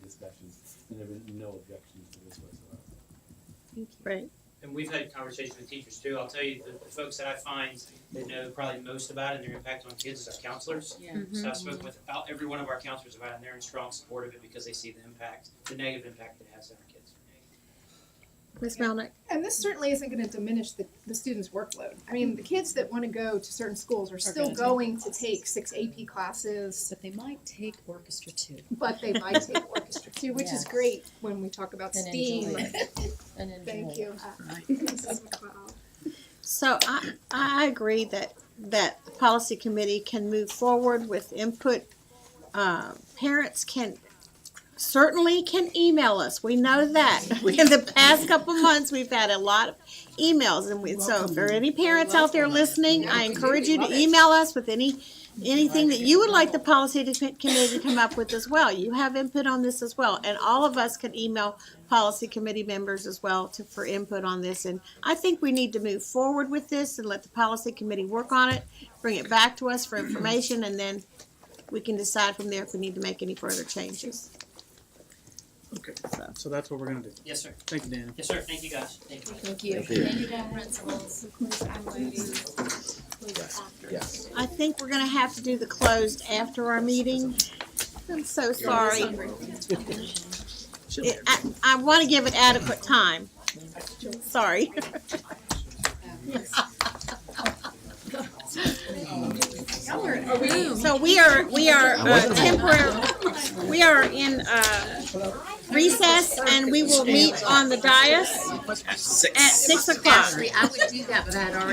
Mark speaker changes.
Speaker 1: and there were no objections to this whatsoever.
Speaker 2: Right.
Speaker 3: And we've had conversations with teachers too. I'll tell you, the, the folks that I find that know probably most about it and their impact on kids is our counselors.
Speaker 4: Yeah.
Speaker 3: So I've spoken with about every one of our counselors about it, and they're in strong support of it because they see the impact, the negative impact it has on our kids.
Speaker 2: Ms. Melnick?
Speaker 5: And this certainly isn't gonna diminish the, the students' workload. I mean, the kids that wanna go to certain schools are still
Speaker 4: gonna take
Speaker 5: going to
Speaker 4: classes.
Speaker 5: take six AP classes,
Speaker 4: But they might take orchestra too.
Speaker 5: but they might take orchestra too, which is
Speaker 4: Yes.
Speaker 5: great when we talk about
Speaker 4: And
Speaker 5: STEAM.
Speaker 4: enjoy And enjoy.
Speaker 5: Thank you.
Speaker 4: Right.
Speaker 5: Mrs. McLeod.
Speaker 2: So I, I agree that, that the policy committee can move forward with input. Um, Parents can, certainly can email us, we know that. In the past couple months, we've had a lot of emails and we, so if there are any parents out there listening, I encourage you to email us with any, anything that you would like the policy to- committee to come up with as well. You have input on this as well, and all of us can email policy committee members as well to, for input on this. And I think we need to move forward with this and let the policy committee work on it, bring it back to us for information, and then we can decide from there if we need to make any further changes.
Speaker 6: Okay, so that's what we're gonna do.
Speaker 3: Yes, sir.
Speaker 6: Thank you, Dana.
Speaker 3: Yes, sir. Thank you, guys. Thank you.
Speaker 4: Thank you.
Speaker 7: Here,
Speaker 2: I think we're gonna have to do the closed after our meeting. I'm so sorry. It- I, I wanna give it adequate time. Sorry. So we are, we are uh, temporary, we are in uh, recess and we will meet on the dais
Speaker 7: Six.
Speaker 2: at six o'clock.
Speaker 8: Actually, I would do that, but I had already